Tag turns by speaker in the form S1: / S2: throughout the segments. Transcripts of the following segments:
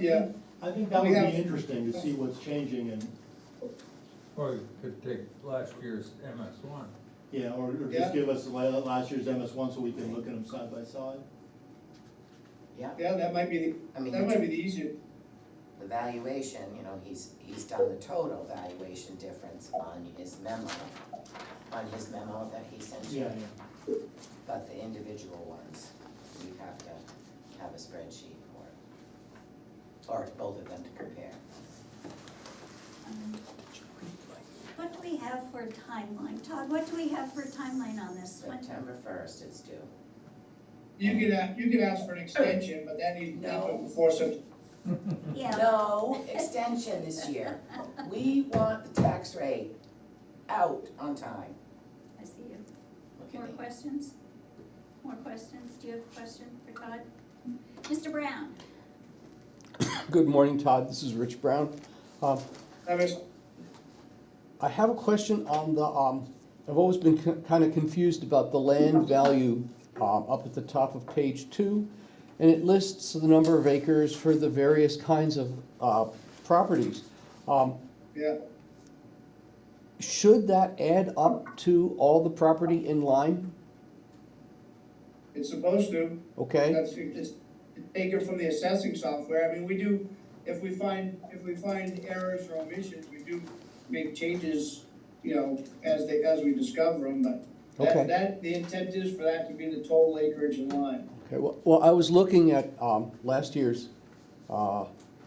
S1: Yeah,
S2: I think that
S1: We
S2: would
S1: have-
S2: be interesting to see what's changing and,
S3: Or you could take last year's MS one.
S2: yeah, or, or
S1: Yeah.
S2: just give us la- last year's MS one so we can look at them side by side.
S4: Yeah,
S1: yeah, that might be,
S4: I
S1: the
S4: mean,
S1: that might
S4: the
S1: be the easier,
S4: the valuation, you know, he's, he's done the total valuation difference on his memo, on his memo that he sent you,
S2: Yeah, yeah.
S4: but the individual ones, you have to have a spreadsheet for, or both of them to compare.
S5: What do we have for a timeline? Todd, what do we have for a timeline on this one?
S4: September first is due.
S1: you could, a- you could ask for an extension, but that needs, that
S4: No.
S1: would before some,
S5: Yeah,
S4: No extension this year. We want the tax rate out on time.
S5: I see you.
S4: Look
S5: More
S4: at me.
S5: questions? More questions? Do you have a question for Todd? Mr. Brown?
S6: Good morning, Todd. This is Rich Brown. Um,
S1: that was,
S6: I have a question on the, um, I've always been kind of confused about the land value um, up at the top of page two. And it lists the number of acres for the various kinds of uh, properties. Um,
S1: yeah.
S6: Should that add up to all the property in line?
S1: It's supposed to,
S6: Okay?
S1: that's, you just take it from the assessing software, I mean, we do, if we find, if we find errors or omissions, we do make changes, you know, as they, as we discover them, but
S6: Okay.
S1: that, that, the intent is for that to be the total acreage in line.
S6: Okay, well, well, I was looking at um, last year's uh,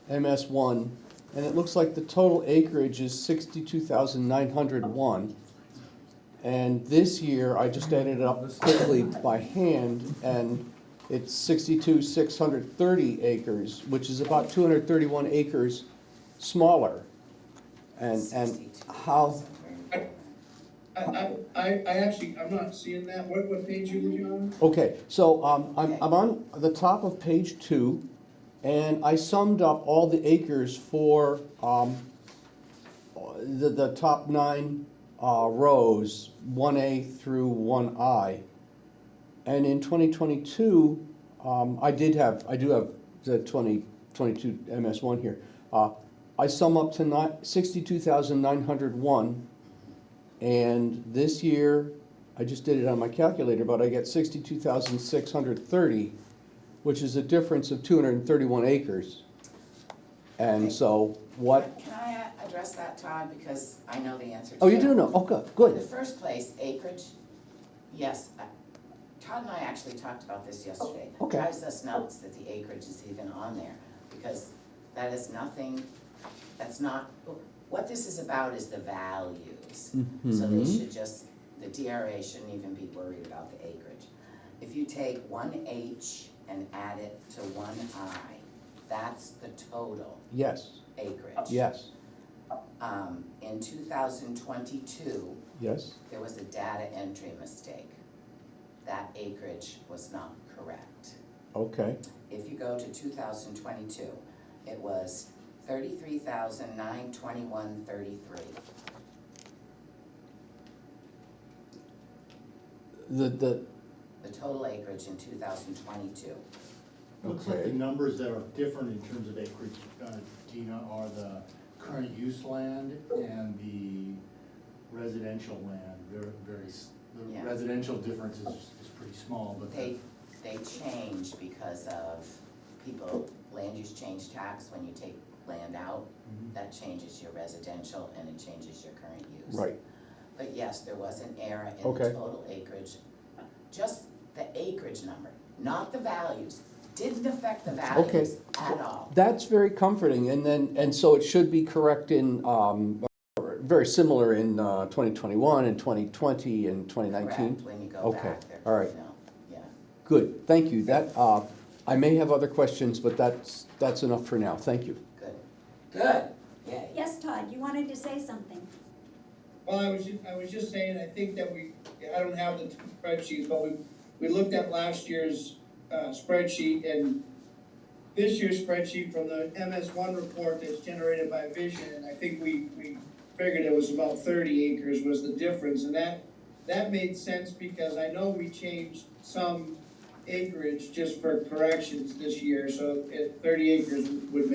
S6: MS1, and it looks like the total acreage is 62,901. And this year, I just added it up quickly by hand, and it's 62,630 acres, which is about 231 acres smaller. And, and how,
S1: I, I, I, I actually, I'm not seeing that, what, what page you were on?
S6: Okay, so um, I'm I'm on the top of page two, and I summed up all the acres for um, the the top nine uh, rows, 1A through 1I. And in 2022, um, I did have, I do have the 2022 MS1 here. Uh, I sum up to ni- 62,901, and this year, I just did it on my calculator, but I get 62,630, which is a difference of 231 acres. And so what,
S4: Can I uh, address that, Todd, because I know the answer to
S6: oh, you
S4: it.
S6: do know, okay,
S4: In the
S6: good.
S4: first place, acreage, yes, I- Todd and I actually talked about this yesterday.
S6: Oh, okay.
S4: Drives us nuts that the acreage is even on there, because that is nothing, that's not, what this is about is the values. So they
S6: Mhm.
S4: should just, the DRA shouldn't even be worried about the acreage. If you take one H and add it to one I, that's the total
S6: Yes,
S4: acreage.
S6: yes,
S4: Um, in two thousand twenty-two,
S6: yes,
S4: there was a data entry mistake. That acreage was not correct.
S6: okay,
S4: If you go to two thousand twenty-two, it was thirty-three thousand nine twenty-one thirty-three.
S6: the, the,
S4: The total acreage in two thousand twenty-two.
S2: Looks like the
S6: Okay.
S2: numbers that are different in terms of acreage, uh, Dina, are the current use land and the residential land. They're very, s- the
S4: Yeah.
S2: residential difference is, is pretty small, but the
S4: They, they changed because of people, land use change tax, when you take land out,
S2: Mhm.
S4: that changes your residential and it changes your current use.
S6: right,
S4: But yes, there was an error in the
S6: Okay.
S4: total acreage, just the acreage number, not the values, didn't affect the values at all.
S6: that's very comforting, and then, and so it should be correct in, um, or very similar in, uh, twenty twenty-one and twenty twenty and twenty nineteen?
S4: Correct, when you go
S6: Okay,
S4: back there,
S6: all right.
S4: you know, yeah.
S6: Good, thank you, that, uh, I may have other questions, but that's, that's enough for now, thank you.
S4: Good, good, yay.
S5: Yes, Todd, you wanted to say something.
S1: Well, I was, ju- I was just saying, I think that we, I don't have the spreadsheets, but we, we looked at last year's uh, spreadsheet and this year's spreadsheet from the MS one report that's generated by Vision, and I think we, we figured it was about thirty acres was the difference, and that, that made sense because I know we changed some acreage just for corrections this year, so it, thirty acres would make